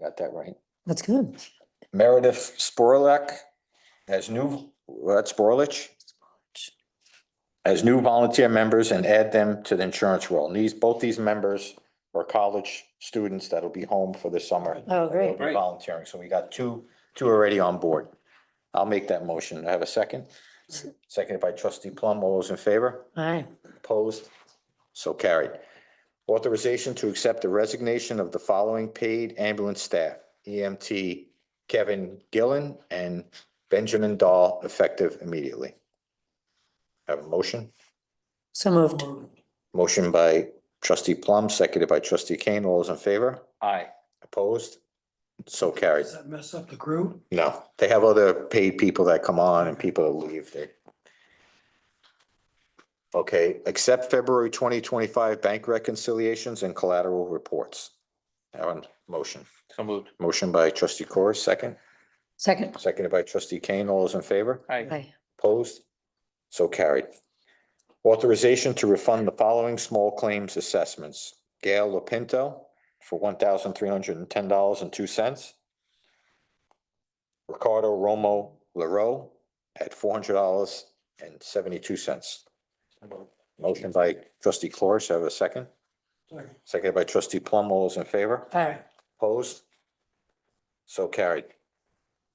Got that right. That's good. Meredith Sporlak as new, that's Sporlich, as new volunteer members and add them to the insurance roll. And These, both these members are college students that'll be home for the summer. Oh, They'll great. be Volunteering, so we got two, two already on board. I'll make that motion. I have a second. Seconded by trustee Plum. All those in favor? All right. Opposed? So carried. Authorization to accept the resignation of the following paid ambulance staff, EMT Kevin Gillen and Benjamin Dahl, effective immediately. Have a motion? So moved. Motion by trustee Plum, seconded by trustee Kane. All those in favor? Aye. Opposed? So carried. Does that mess up the crew? No, they have other paid people that come on and people that leave there. Okay, accept February twenty twenty-five bank reconciliations and collateral reports. Have a motion. So moved. Motion by trustee Corr, second, Second. seconded by trustee Kane. All those in favor? Aye. Aye. Opposed? So carried. Authorization to refund the following small claims assessments. Gail Lapinto for one thousand three hundred and ten dollars and two cents. Ricardo Romo Laro at four hundred dollars and seventy-two cents. Motion by trustee Cloris, have a second. Second. Seconded by trustee Plum. All those in favor? Aye. Opposed? So carried.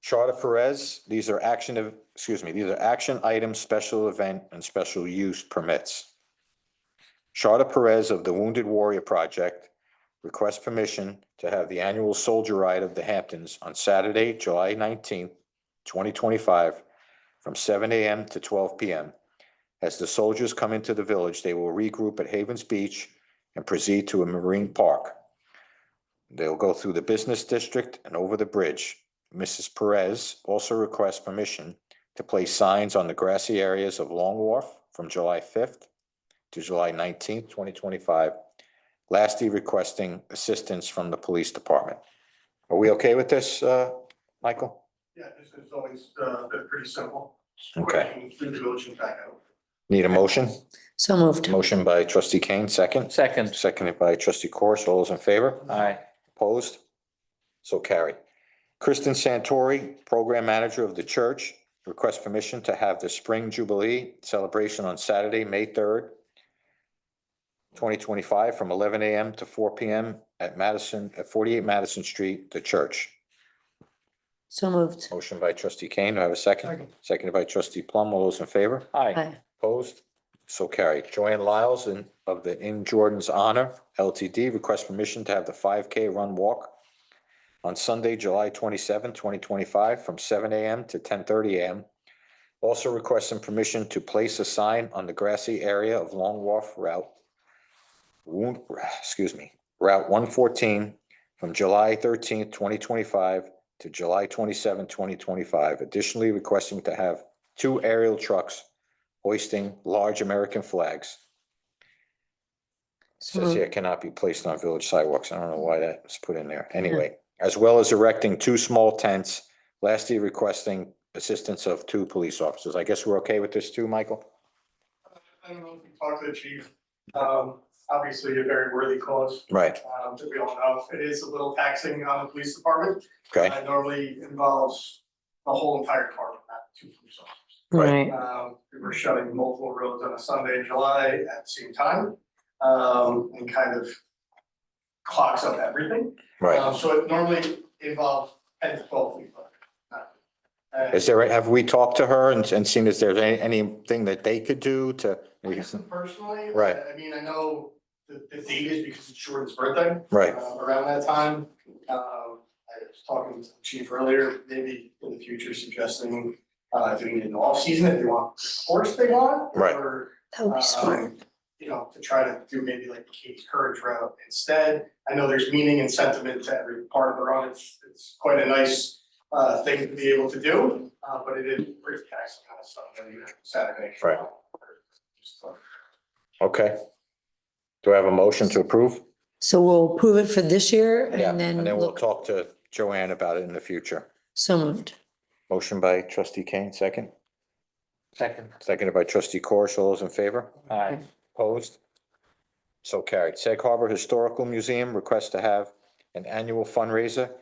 Charter Perez, these are action of, excuse me, these are action items, special event and special use permits. Charter Perez of the Wounded Warrior Project requests permission to have the annual soldier ride of the Hamptons on Saturday, July nineteenth, twenty twenty-five, from seven AM to twelve PM. As the soldiers come into the village, they will regroup at Havens Beach and proceed to a marine park. They'll go through the business district and over the bridge. Mrs. Perez also requests permission to place signs on the grassy areas of Long Wharf from July fifth to July nineteenth, twenty twenty-five. Lastly, requesting assistance from the police department. Are we okay with this, uh, Michael? Yeah, this is always, uh, been pretty simple. Okay. Through the village and back out. Need a motion? So moved. Motion by trustee Kane, second. Second. Seconded by trustee Corus. All those in favor? Aye. Opposed? So carried. Kristen Santori, Program Manager of the church, requests permission to have the Spring Jubilee celebration on Saturday, May third, twenty twenty-five, from eleven AM to four PM at Madison, at forty-eight Madison Street, the church. So moved. Motion by trustee Kane. Do I have a second? Second. Seconded by trustee Plum. All those in favor? Aye. Aye. Opposed? So carried. Joanne Lyles in, of the In Jordan's Honor LTD requests permission to have the five K run walk on Sunday, July twenty seventh, twenty twenty five, from seven AM to ten thirty AM. Also requesting permission to place a sign on the grassy area of Long Wharf Route Wound, excuse me, Route one fourteen from July thirteenth, twenty twenty five to July twenty seventh, twenty twenty five. Additionally requesting to have two aerial trucks hoisting large American flags. So Says moved. here cannot be placed on village sidewalks. I don't know why that was put in there. Mm-hmm. Anyway, as well as erecting two small tents. Lastly, requesting assistance of two police officers. I guess we're okay with this too, Michael? I don't know if you talked to the chief, um, obviously a very worthy cause, Right, um, that we all know. It is a little taxing on the police department. okay, Uh, Normally involves the whole entire department, not two police officers. Right. Um, we were shutting multiple roads on a Sunday in July at the same time, um, and kind of clogs up everything. right. Um, so it normally involves ten to twelve people. not- and- Is there, have we talked to her and, and seen if there's any, anything that they could do to? I guess personally. Right. I mean, I know the, the date is because it's Jordan's birthday. Right, uh, Around that time, um, I was talking to the chief earlier, maybe in the future suggesting, uh, doing it in the off season if they want, the course they want. Right. Or, That would be smart. um, you know, to try to do maybe like the Kate's Courage route instead. I know there's meaning and sentiment to every part of the run. It's, it's quite a nice, uh, thing to be able to do, uh, but it is pretty taxing on a Sunday, Saturday. Right. Just, uh, okay. Do I have a motion to approve? So we'll prove it for this year Yeah, and then And then we'll look. talk to Joanne about it in the future. So moved. Motion by trustee Kane, second. Second. Seconded by trustee Corish. All those in favor? Aye. Opposed? So carried. Sag Harbor Historical Museum requests to have an annual fundraiser